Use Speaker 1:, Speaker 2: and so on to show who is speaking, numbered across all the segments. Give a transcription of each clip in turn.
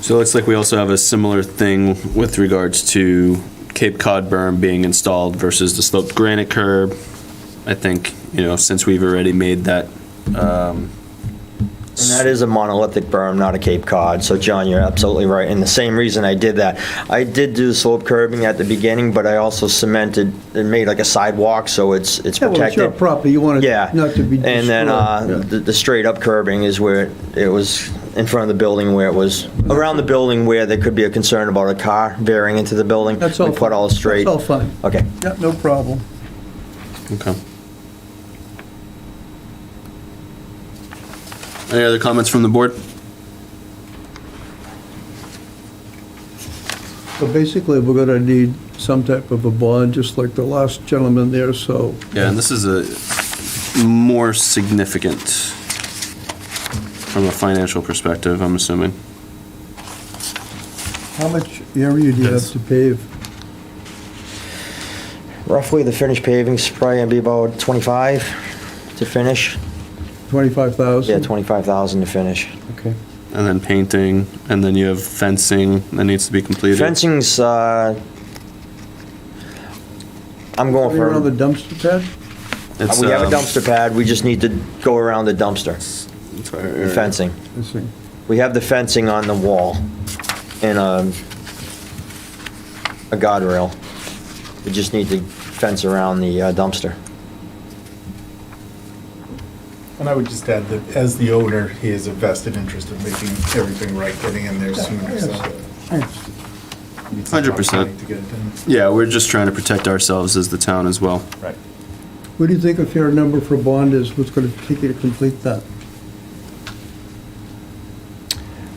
Speaker 1: So it looks like we also have a similar thing with regards to Cape Cod berm being installed versus the sloped granite curb. I think, you know, since we've already made that,
Speaker 2: And that is a monolithic berm, not a Cape Cod. So, John, you're absolutely right. And the same reason I did that, I did do slope curbing at the beginning, but I also cemented and made like a sidewalk, so it's it's
Speaker 3: Yeah, well, it's your
Speaker 2: protected.
Speaker 3: property, you want
Speaker 2: Yeah.
Speaker 3: it not to be destroyed.
Speaker 2: And then uh,
Speaker 3: Yeah.
Speaker 2: the, the straight up curbing is where it, it was in front of the building, where it was around the building, where there could be a concern about a car veering into the building.
Speaker 3: That's all
Speaker 2: We put
Speaker 3: fine.
Speaker 2: all straight.
Speaker 3: That's all fine.
Speaker 2: Okay.
Speaker 3: Yeah, no problem.
Speaker 1: okay. Any other comments from the board?
Speaker 3: So basically, we're gonna need some type of a bond, just like the last gentleman there, so.
Speaker 1: Yeah, and this is a more significant from a financial perspective, I'm assuming.
Speaker 3: How much area do you have
Speaker 1: Yes.
Speaker 3: to pave?
Speaker 2: Roughly, the finished paving's probably gonna be about 25 to finish.
Speaker 3: Twenty-five thousand?
Speaker 2: Yeah, 25,000 to finish.
Speaker 3: Okay.
Speaker 1: And then painting, and then you have fencing that needs to be completed.
Speaker 2: Fencing's, uh, I'm going
Speaker 3: Around the
Speaker 2: for,
Speaker 3: dumpster pad?
Speaker 1: It's,
Speaker 2: we have a
Speaker 1: um,
Speaker 2: dumpster pad, we just need to go around the dumpster,
Speaker 1: it's right-
Speaker 2: the fencing.
Speaker 3: I see.
Speaker 2: We have the fencing on the wall and um, a guardrail. We just need to fence around the uh, dumpster.
Speaker 4: And I would just add that as the owner, he has a vested interest in making everything right, getting in there sooner, so. it's a
Speaker 1: 100%.
Speaker 4: lot To get it done.
Speaker 1: Yeah, we're just trying to protect ourselves as the town as well.
Speaker 4: Right.
Speaker 3: What do you think a fair number for bond is, what's gonna take you to complete that?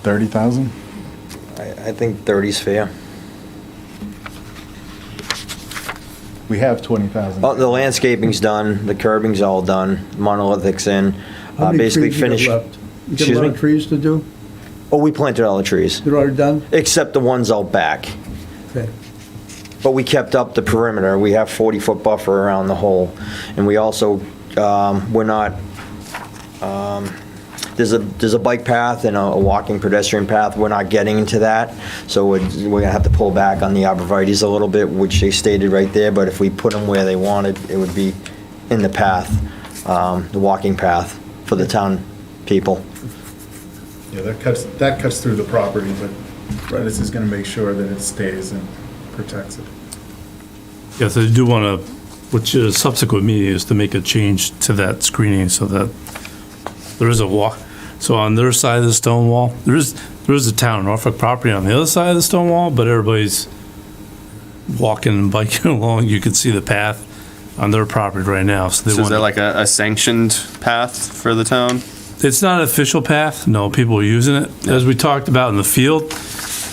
Speaker 4: 30,000?
Speaker 2: I I think 30's fair.
Speaker 4: We have 20,000.
Speaker 2: Oh, The landscaping's done, the curbing's all done, monolithic's in,
Speaker 3: How
Speaker 2: uh,
Speaker 3: many
Speaker 2: basically
Speaker 3: trees you got
Speaker 2: finished.
Speaker 3: left? You got a
Speaker 2: Excuse
Speaker 3: lot
Speaker 2: me?
Speaker 3: of trees to do?
Speaker 2: Oh, we planted all the trees,
Speaker 3: They're already done?
Speaker 2: except the ones out back.
Speaker 3: Okay.
Speaker 2: But we kept up the perimeter. We have 40-foot buffer around the hole. And we also, um, we're not, um, there's a, there's a bike path and a a walking pedestrian path. We're not getting into that. So we're, we're gonna have to pull back on the arborvitae's a little bit, which they stated right there. But if we put them where they wanted, it would be in the path, um, the walking path for the town people.
Speaker 4: Yeah, that cuts, that cuts through the property, but this is going to make sure that it stays and protects it.
Speaker 5: Yes, I do want to, which is subsequent meeting, is to make a change to that screening so that there is a walk. So on their side of the stone wall, there is, there is a town Norfolk property on the other side of the stone wall, but everybody's walking and biking along. You can see the path on their property right now,
Speaker 1: So
Speaker 5: so they
Speaker 1: is that like
Speaker 5: want.
Speaker 1: a, a sanctioned path for the town?
Speaker 5: It's not an official path. No, people are using it. As we talked about in the field,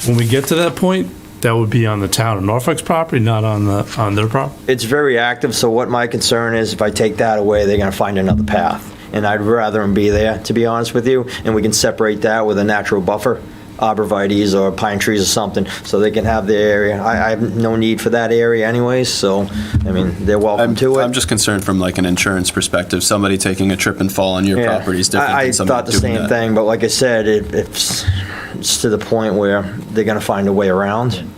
Speaker 5: when we get to that point, that would be on the town of Norfolk's property, not on the, on their property.
Speaker 2: it's very active, so what my concern is, if I take that away, they're gonna find another path. And I'd rather them be there, to be honest with you, and we can separate that with a natural buffer, arborvitae's or pine trees or something, so they can have their area. I, I have no need for that area anyways, so, I mean, they're welcome
Speaker 1: I'm,
Speaker 2: to it.
Speaker 1: I'm just concerned from like an insurance perspective, somebody taking a trip and fall on your
Speaker 2: Yeah.
Speaker 1: property is different
Speaker 2: I-
Speaker 1: than
Speaker 2: I thought
Speaker 1: somebody
Speaker 2: the
Speaker 1: doing
Speaker 2: same
Speaker 1: that.
Speaker 2: thing, but like I said, it, it's, it's to the point where they're gonna find a way around.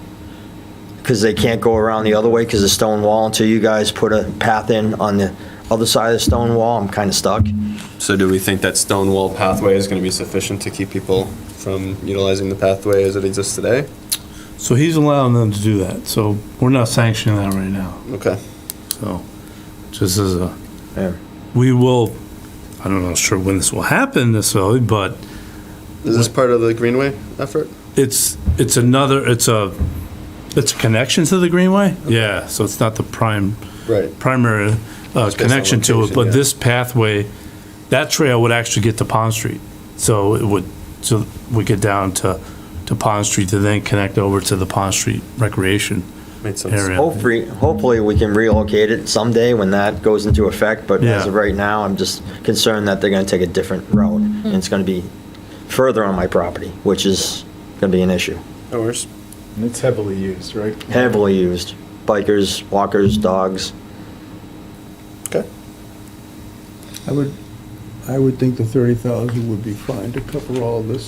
Speaker 2: Cause they can't go around the other way because the stone wall until you guys put a path in on the other side of the stone wall, I'm kinda stuck.
Speaker 1: So do we think that stone wall pathway is gonna be sufficient to keep people from utilizing the pathway as it exists today?
Speaker 5: So he's allowing them to do that, so we're not sanctioning that right now,
Speaker 1: Okay.
Speaker 5: so, just as a,
Speaker 2: Yeah.
Speaker 5: we will, I don't know, sure when this will happen necessarily, but
Speaker 1: Is this part of the Greenway effort?
Speaker 5: it's, it's another, it's a, it's a connection to the Greenway? Yeah, so it's not the prime,
Speaker 1: Right.
Speaker 5: primary uh,
Speaker 1: based on
Speaker 5: connection to it,
Speaker 1: location, yeah.
Speaker 5: but this pathway, that trail would actually get to Pond Street. So it would, so we get down to, to Pond Street to then connect over to the Pond Street Recreation
Speaker 1: Made sense.
Speaker 5: area.
Speaker 2: Hopefully, hopefully we can relocate it someday when that goes into effect, but as
Speaker 5: Yeah.
Speaker 2: of right now, I'm just concerned that they're gonna take a different road. And it's gonna be further on my property, which is gonna be an issue.
Speaker 1: No worries.
Speaker 4: And it's heavily used, right?
Speaker 2: Heavily used, bikers, walkers, dogs.
Speaker 1: Okay.
Speaker 3: I would, I would think the 30,000 would be fine to cover all this.